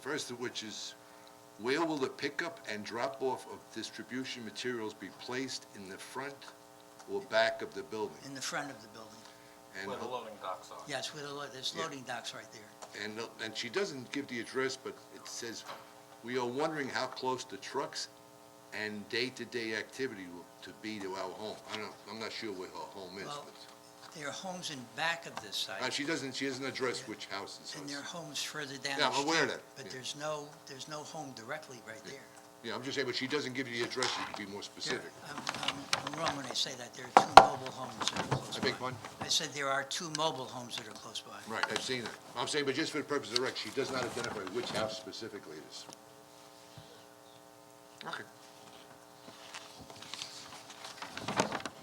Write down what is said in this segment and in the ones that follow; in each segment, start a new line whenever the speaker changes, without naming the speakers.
First of which is, where will the pickup and drop-off of distribution materials be placed in the front or back of the building?
in the front of the building.
And,
Where the loading docks are.
Yes, with a, lo- there's
Yeah.
loading docks right there.
and, and she doesn't give the address, but it says, we are wondering how close the trucks and day-to-day activity will, to be to our home. I don't, I'm not sure where her home is,
Well,
but,
There are homes in back of this
uh,
site,
she doesn't, she doesn't address which houses.
and there are homes further
Yeah,
down the
I'm
street.
aware of that,
But
yeah.
there's no, there's no home directly right there.
Yeah, I'm just saying, but she doesn't give you the address, you can be more specific.
I'm, I'm- I'm wrong when I say that. There are two mobile homes that are close by.
I beg pardon?
I said there are two mobile homes that are close by.
Right, I've seen it. I'm saying, but just for the purpose of the record, she does not identify which house specifically it is. Okay.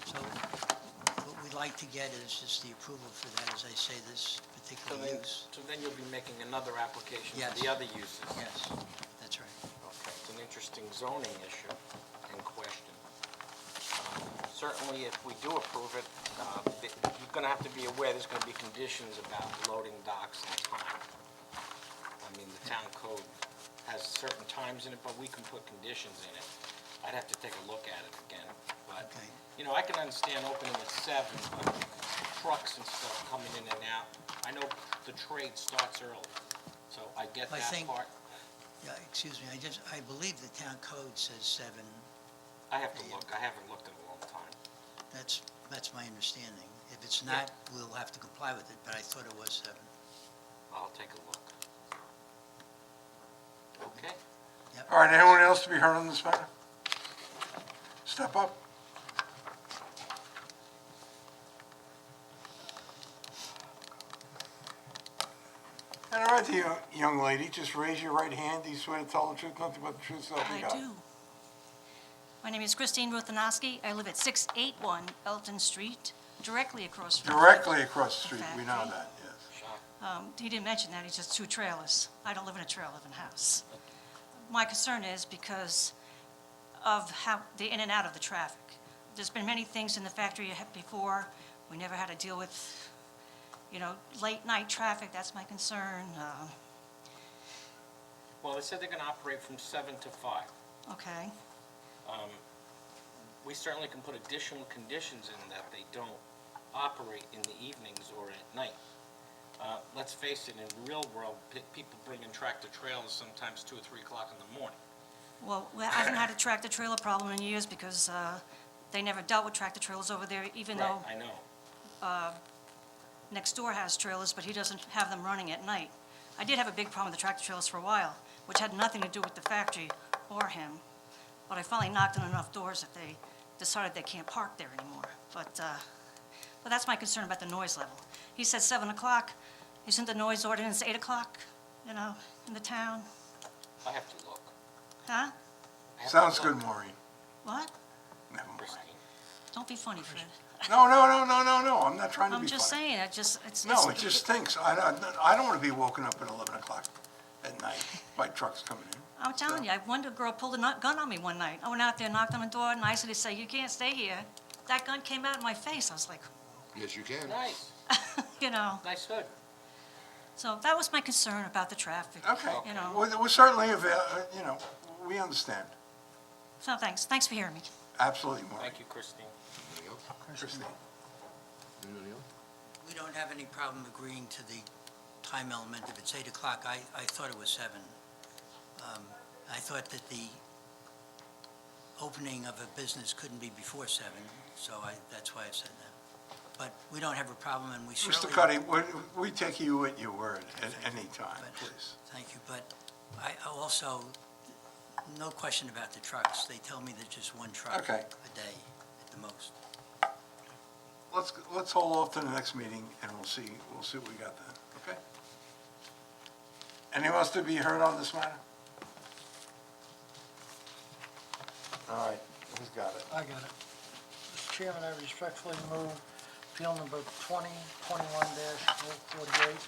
So what we'd like to get is just the approval for that, as I say, this
So
particular
then,
use.
so then you'll be making another application
Yes.
for the other uses.
Yes, that's right.
Okay, it's an interesting zoning issue and question. Um, Certainly, if we do approve it, uh, th- you're going to have to be aware there's going to be conditions about loading docks and time. I mean, the town code has certain times in it, but we can put conditions in it. I'd have to take a look at it again, but,
Okay.
you know, I can understand opening at seven, but trucks and stuff coming in and out. I know the trade starts early, so I get
I
that
think-
part.
Yeah, excuse me, I just, I believe the town code says seven.
I have to look, I haven't looked in a long time.
That's, that's my understanding. If it's not, we'll have to comply with it, but I thought it was uh, seven.
I'll take a look. Okay,
All right, anyone else to be heard on this matter? Step up. And all right, the yo- young lady, just raise your right hand. Do you swear to tell the truth, nothing but the truth, so help you
I
God?
do. My name is Christine Ruthenoski. I live at 681 Elton Street, directly across from...
Directly across the street, we know that, yes.
Um, He didn't mention that, he just two trailers. I don't live in a trailer, I live in a house. My concern is because of how, the in and out of the traffic. There's been many things in the factory before, we never had to deal with, you know, late-night traffic, that's my concern. Uh,
well, they said they're gonna operate from seven to five.
Okay,
We certainly can put additional conditions in that they don't operate in the evenings or at night. Uh, let's face it, in real world, pe- people bring in tractor trailers sometimes two or three o'clock in the morning.
Well, we- I haven't had a tractor-trailer problem in years because uh, they never dealt with tractor-trailers over there, even though
Right, I know.
next door has trailers, but he doesn't have them running at night. I did have a big problem with the tractor-trailers for a while, which had nothing to do with the factory or him, but I finally knocked on enough doors that they decided they can't park there anymore. But, uh, but that's my concern about the noise level. He said 7 o'clock. Isn't the noise ordinance 8 o'clock, you know, in the town?
I have to look.
Huh?
I have to
Sounds good,
look,
Maureen.
What?
Never mind.
Christine.
Don't be funny, Fred.
No, no, no, no, no, no, I'm not trying to
I'm
be
just
funny.
saying, I just, it's...
No,
it's-
it just stinks. I, I, I don't want to be woken up at 11 o'clock at night by trucks coming in.
I'm telling you, I- one girl pulled a nu- gun on me one night. I went out there, knocked on the door, and I said, say, you can't stay here. That gun came out in my face. I was like,
Yes, you can.
Nice,
you know,
nice hood.
so that was my concern about the traffic.
Okay,
You know,
well, th- we certainly, have, uh, you know, we understand,
so thanks, thanks for hearing me.
absolutely, Maureen.
Thank you, Christine.
Anybody else?
Christine.
Anybody else?
We don't have any problem agreeing to the time element. If it's eight o'clock, I, I thought it was seven. Um, I thought that the opening of a business couldn't be before seven, so I, that's why I said that. But we don't have a problem, and we
Mr.
certainly...
Cuddy, we- we take you at your word at any time,
But-
please.
Thank you, but I I also, no question about the trucks. They tell me there's just one truck
Okay.
a day at the most.
Let's, let's hold off to the next meeting, and we'll see, we'll see what we got then, okay? Anyone else to be heard on this matter? All right, who's got it?
I got it. Mr. Chairman, I respectfully move appeal number 2021-048,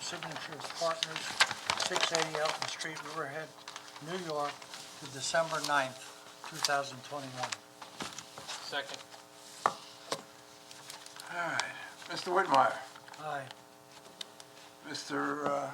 Signature Partners, 680 Elton Street, Riverhead, New York, to December 9th, 2021.
Second,
All right, Mr. Whitmire,
Aye.
Mr. uh,